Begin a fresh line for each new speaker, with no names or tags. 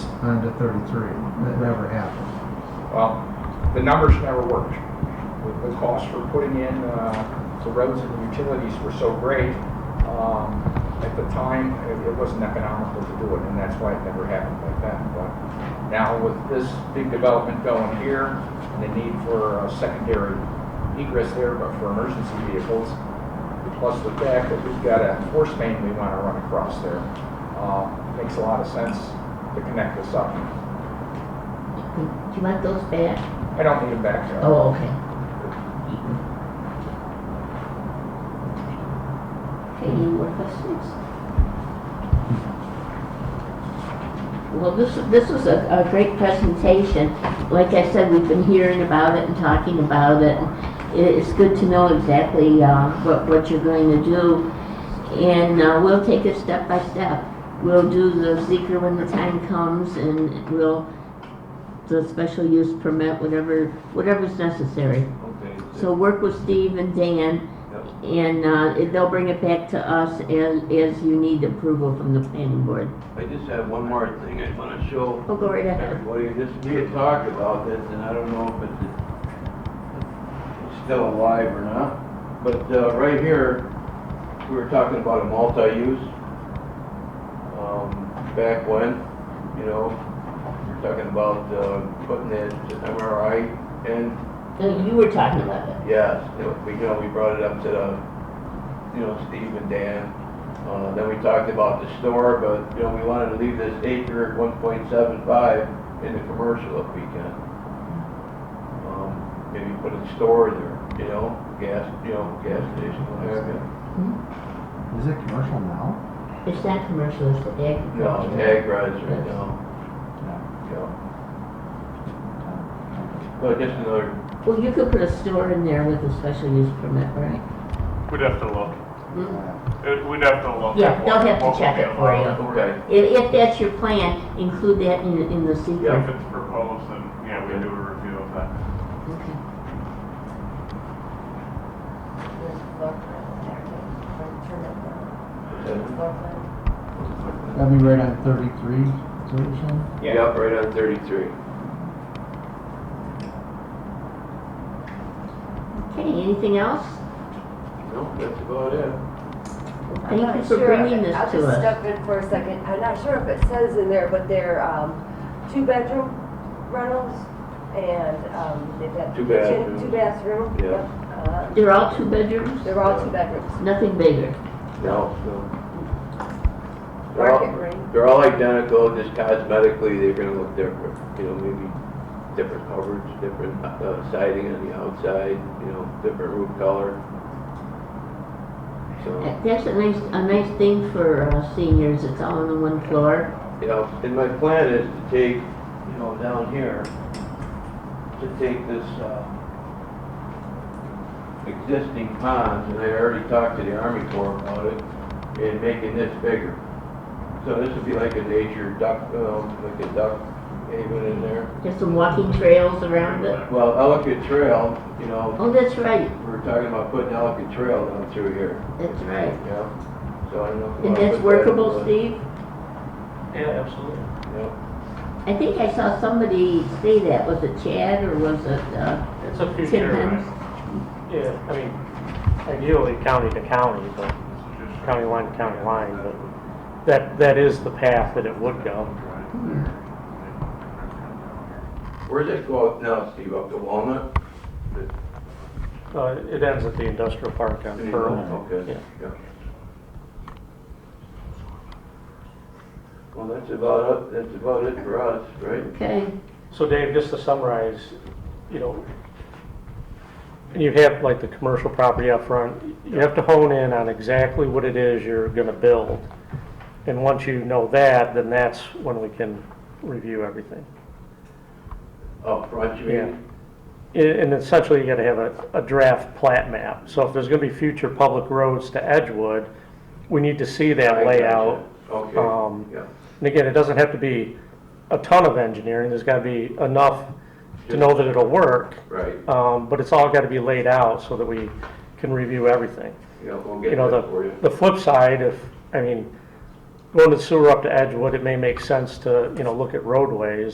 onto 33. That never happened.
Well, the numbers never worked. The- The cost for putting in uh, the roads and the utilities were so great, um, at the time, it it wasn't economical to do it, and that's why it never happened like that. But now with this big development going here, and the need for uh, secondary egress there, but for emergency vehicles, plus the fact that we've got a force main we want to run across there, uh, makes a lot of sense to connect this up.
Do you want those back?
I don't need them back there.
Oh, okay. Okay, any more questions? Well, this, this was a, a great presentation. Like I said, we've been hearing about it and talking about it. It, it's good to know exactly, uh, what, what you're going to do. And, uh, we'll take it step by step. We'll do the seeker when the time comes and we'll, the special use permit, whatever, whatever's necessary.
Okay.
So work with Steve and Dan,
Yep.
and uh, it- they'll bring it back to us as, as you need approval from the planning board.
I just have one more thing I want to show
Oh, go right ahead.
everybody. This, we had talked about this, and I don't know if it's, it's still alive or not. But, uh, right here, we were talking about a multi-use, um, back when, you know, we we're talking about, uh, putting that MRI in
No, Uh, You were talking about it.
Yes, it was- we, you know, we brought it up to the, you know, Steve and Dan. Uh, then we talked about the store, but, you know, we wanted to leave this acre at one point seven five in the commercial if we can. Um, Maybe put a store there, you know, gas, you know, gas station, whatever.
Is it commercial now?
It's not commercial, it's
No,
agricultural.
tag rides right now, you know. But just another,
Well, you could put a store in there with a special use permit, right?
We'd have to look.
Mm-hmm.
Hmm?
It- We'd have to look.
Yeah,
at
they'll
what-
have to
what
check
we uh,
it for you.
allow.
okay,
If, if that's your plan, include that in, in the
Yeah.
secret.
If it's proposed, then, yeah, we do a review of that.
Okay.
That'd be right on 33, is what you're saying?
yeah, right on thirty-three.
Okay, anything else?
No, that's about it.
I'm
Thank you
not
for
sure.
bringing this
I'll
to
just
us.
step in for a second. I'm not sure if it says in there, but they're, um, two-bedroom rentals and, um, they've got
Two
kitchen,
bathrooms.
two bathroom.
Yeah.
Yep. Uh,
They're all two bedrooms,
They're all two bedrooms.
nothing bigger.
No, no. They're
Market
all,
rate.
they're all identical, just cosmetically, they're gonna look different, you know, maybe different coverage, different uh, siding on the outside, you know, different roof color. So,
That's a nice, a nice thing for uh, seniors, it's all on the one floor.
you know, and my plan is to take, you know, down here, to take this, uh, existing pond, and I already talked to the Army Corps about it, and making this bigger. So this would be like a nature duck, um, like a duck haven in there.
There's some walking trails around it.
Well, Ellicott Trail, you know,
Oh, that's right,
we were talking about putting Ellicott Trail down through here,
that's right.
yeah? So I don't know. if we
And that's
wanna put that in
workable,
the-
Steve?
Yeah, absolutely.
Yeah,
I think I saw somebody say that, was it Chad or was it uh,
It's a
Tim
future,
Hens?
right? yeah, I mean, ideally county to county, but county line to county line, but that, that is the path that it would go.
where's it go up now, Steve, up to Walnut?
Uh, it ends at the industrial park on Pearl.
Okay,
Yeah.
yeah. Well, that's about it, that's about it for us, right?
Okay,
So Dave, just to summarize, you know, and you have like the commercial property up front, you have to hone in on exactly what it is you're gonna build. And once you know that, then that's when we can review everything.
Up front, Oh, you
Yeah.
mean?
And and essentially, you gotta have a, a draft plat map. So if there's gonna be future public roads to Edgewood, we need to see
I
that
gotcha.
layout. um,
Okay, yeah.
And again, it doesn't have to be a ton of engineering, there's gotta be enough to know that it'll work.
Right,
Um, but it's all gotta be laid out so that we can review everything.
yeah, we'll
You
get
know,
that for you.
the, the flip side, if, I mean, going to sewer up to Edgewood, it may make sense to, you know, look at roadways